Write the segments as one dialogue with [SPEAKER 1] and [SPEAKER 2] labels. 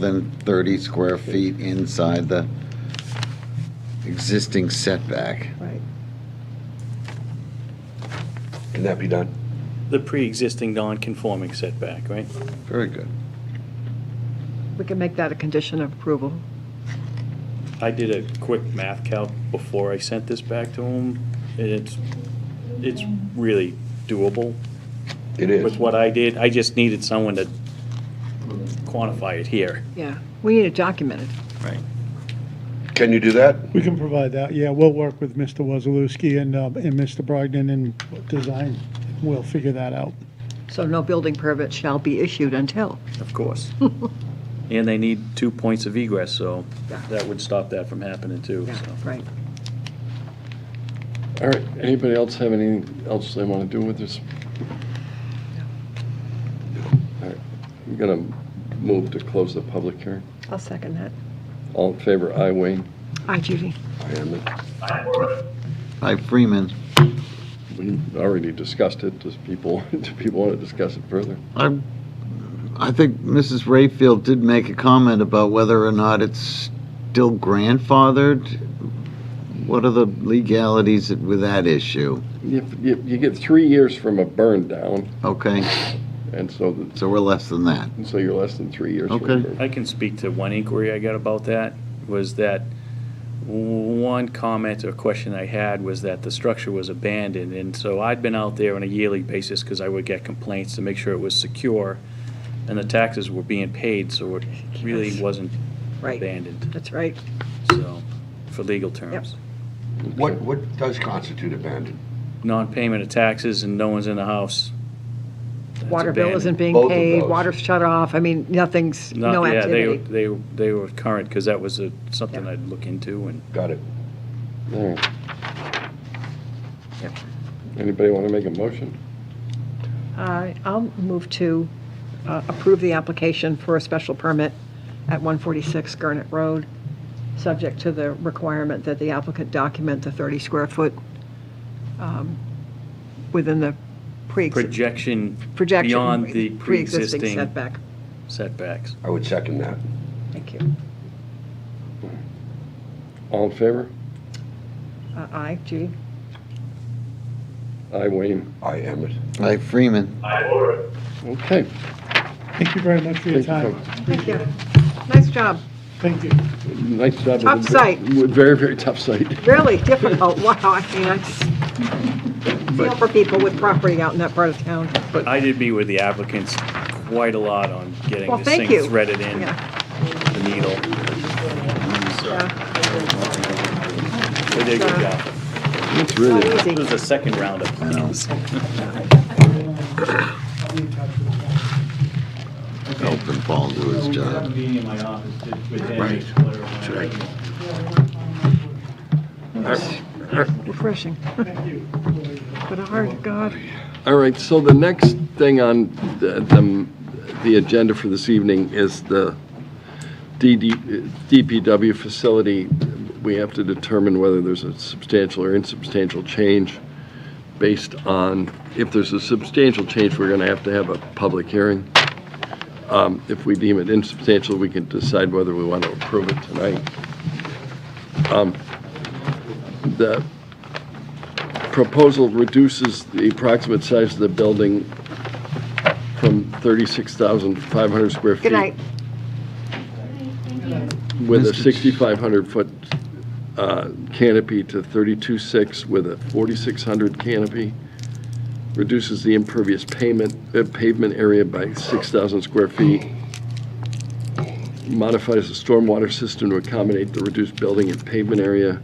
[SPEAKER 1] than 30 square feet inside the existing setback.
[SPEAKER 2] Right.
[SPEAKER 3] Can that be done?
[SPEAKER 4] The pre-existing non-conforming setback, right?
[SPEAKER 1] Very good.
[SPEAKER 2] We can make that a condition of approval.
[SPEAKER 4] I did a quick math calc before I sent this back to him, and it's, it's really doable
[SPEAKER 3] It
[SPEAKER 4] with
[SPEAKER 3] is.
[SPEAKER 4] what I did. I just needed someone to quantify it here.
[SPEAKER 2] Yeah, we need it documented.
[SPEAKER 3] Can you do that?
[SPEAKER 5] We can provide that, yeah, we'll work with Mr. Wazalewski and, uh, and Mr. Brogdon and design, we'll figure that out.
[SPEAKER 2] So no building permit shall be issued until.
[SPEAKER 4] Of course. And they need two points of egress, so that would stop that from happening too,
[SPEAKER 2] Yeah,
[SPEAKER 4] so.
[SPEAKER 2] right.
[SPEAKER 6] All right, anybody else have anything else they want to do with this? All right, I'm going to move to close the public hearing.
[SPEAKER 2] I'll second that.
[SPEAKER 6] All in favor, aye, Wayne.
[SPEAKER 2] Aye, Judy.
[SPEAKER 6] Aye, Emmett.
[SPEAKER 1] Hi, Freeman.
[SPEAKER 6] We already discussed it, does people, do people want to discuss it further?
[SPEAKER 1] I, I think Mrs. Rayfield did make a comment about whether or not it's still grandfathered. What are the legalities with that issue?
[SPEAKER 6] You, you you get three years from a burn down,
[SPEAKER 1] Okay,
[SPEAKER 6] and so, the-
[SPEAKER 1] so we're less than that.
[SPEAKER 6] and so you're less than three years. from a
[SPEAKER 1] Okay.
[SPEAKER 6] burn.
[SPEAKER 4] I can speak to one inquiry I got about that, was that one comment or question I had was that the structure was abandoned, and so I'd been out there on a yearly basis, because I would get complaints to make sure it was secure, and the taxes were being paid, so it really
[SPEAKER 2] Yes.
[SPEAKER 4] wasn't
[SPEAKER 2] Right,
[SPEAKER 4] abandoned,
[SPEAKER 2] that's right.
[SPEAKER 4] so, for legal terms.
[SPEAKER 3] What, what does constitute abandoned?
[SPEAKER 4] Non-payment of taxes and no one's in the house. That's
[SPEAKER 2] Water bill
[SPEAKER 4] abandoned.
[SPEAKER 2] isn't being
[SPEAKER 3] Both of
[SPEAKER 2] paid,
[SPEAKER 3] those.
[SPEAKER 2] water's shut off, I mean, nothing's,
[SPEAKER 4] Not-
[SPEAKER 2] no
[SPEAKER 4] yeah, they-
[SPEAKER 2] activity.
[SPEAKER 4] They, they were current, because that was a- something
[SPEAKER 2] Yeah.
[SPEAKER 4] I'd look into, and
[SPEAKER 3] Got it.
[SPEAKER 6] All right.
[SPEAKER 2] Yep.
[SPEAKER 6] Anybody want to make a motion?
[SPEAKER 2] Uh, I'll move to uh, approve the application for a special permit at 146 Gurnett Road, subject to the requirement that the applicant document the 30 square foot um, within the pre
[SPEAKER 4] projection
[SPEAKER 2] projection.
[SPEAKER 4] beyond the pre-existing-
[SPEAKER 2] Setback.
[SPEAKER 4] setbacks.
[SPEAKER 3] I would second that.
[SPEAKER 2] Thank you.
[SPEAKER 6] All in favor?
[SPEAKER 2] Uh, Aye, Judy?
[SPEAKER 6] Aye, Wayne.
[SPEAKER 3] I am it.
[SPEAKER 1] Hi, Freeman.
[SPEAKER 6] Okay.
[SPEAKER 5] Thank you very much for your
[SPEAKER 6] Thank you.
[SPEAKER 5] time.
[SPEAKER 2] Thank you. Nice job.
[SPEAKER 5] Thank you.
[SPEAKER 6] Nice job. with
[SPEAKER 2] Tough
[SPEAKER 6] the-
[SPEAKER 2] site.
[SPEAKER 6] with Very, very tough site.
[SPEAKER 2] Really difficult. Wow, I mean, I just feel for people with property out in that part of town.
[SPEAKER 4] I did meet with the applicants quite a lot on getting
[SPEAKER 2] Well,
[SPEAKER 4] this
[SPEAKER 2] thank
[SPEAKER 4] thing
[SPEAKER 2] you.
[SPEAKER 4] threaded in
[SPEAKER 2] Yeah,
[SPEAKER 4] the needle.
[SPEAKER 2] yeah.
[SPEAKER 4] They did a good job.
[SPEAKER 6] It's really.
[SPEAKER 2] Not easy.
[SPEAKER 4] This was the second round of plans.
[SPEAKER 1] Helping Paul do his job.
[SPEAKER 7] meeting in my office to- with them.
[SPEAKER 3] Right.
[SPEAKER 7] clarify.
[SPEAKER 2] Refreshing. But a hard, God.
[SPEAKER 6] All right, so the next thing on the, the- the agenda for this evening is the DD, DPW facility. We have to determine whether there's a substantial or insubstantial change based on, if there's a substantial change, we're gonna have to have a public hearing. Um, If we deem it insubstantial, we can decide whether we want to approve it tonight. Um, The, proposal reduces the approximate size of the building from 36,500 square feet.
[SPEAKER 2] Good night.
[SPEAKER 6] With a
[SPEAKER 1] Mr. Ch-
[SPEAKER 6] 6,500-foot uh, canopy to 32.6 with a 4,600 canopy. Reduces the impervious payment, uh, pavement area by 6,000 square feet. Modifies the stormwater system to accommodate the reduced building and pavement area.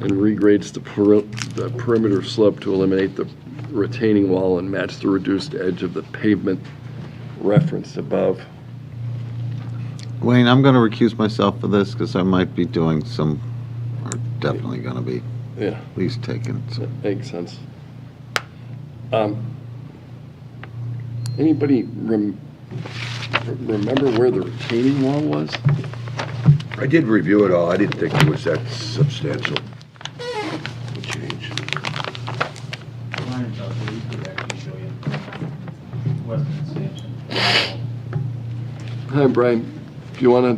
[SPEAKER 6] And regrades the peri- the perimeter slope to eliminate the retaining wall and match the reduced edge of the pavement referenced above.
[SPEAKER 1] Wayne, I'm going to recuse myself for this because I might be doing some, or definitely going to be,
[SPEAKER 6] Yeah.
[SPEAKER 1] at least taking some
[SPEAKER 6] That Makes sense. Um, Anybody rem- remember where the retaining wall was?
[SPEAKER 3] I did review it all. I didn't think it was that substantial. Change.
[SPEAKER 7] Mine's up, but we could actually show you. Western Extension.
[SPEAKER 6] Hi, Brian. if you want to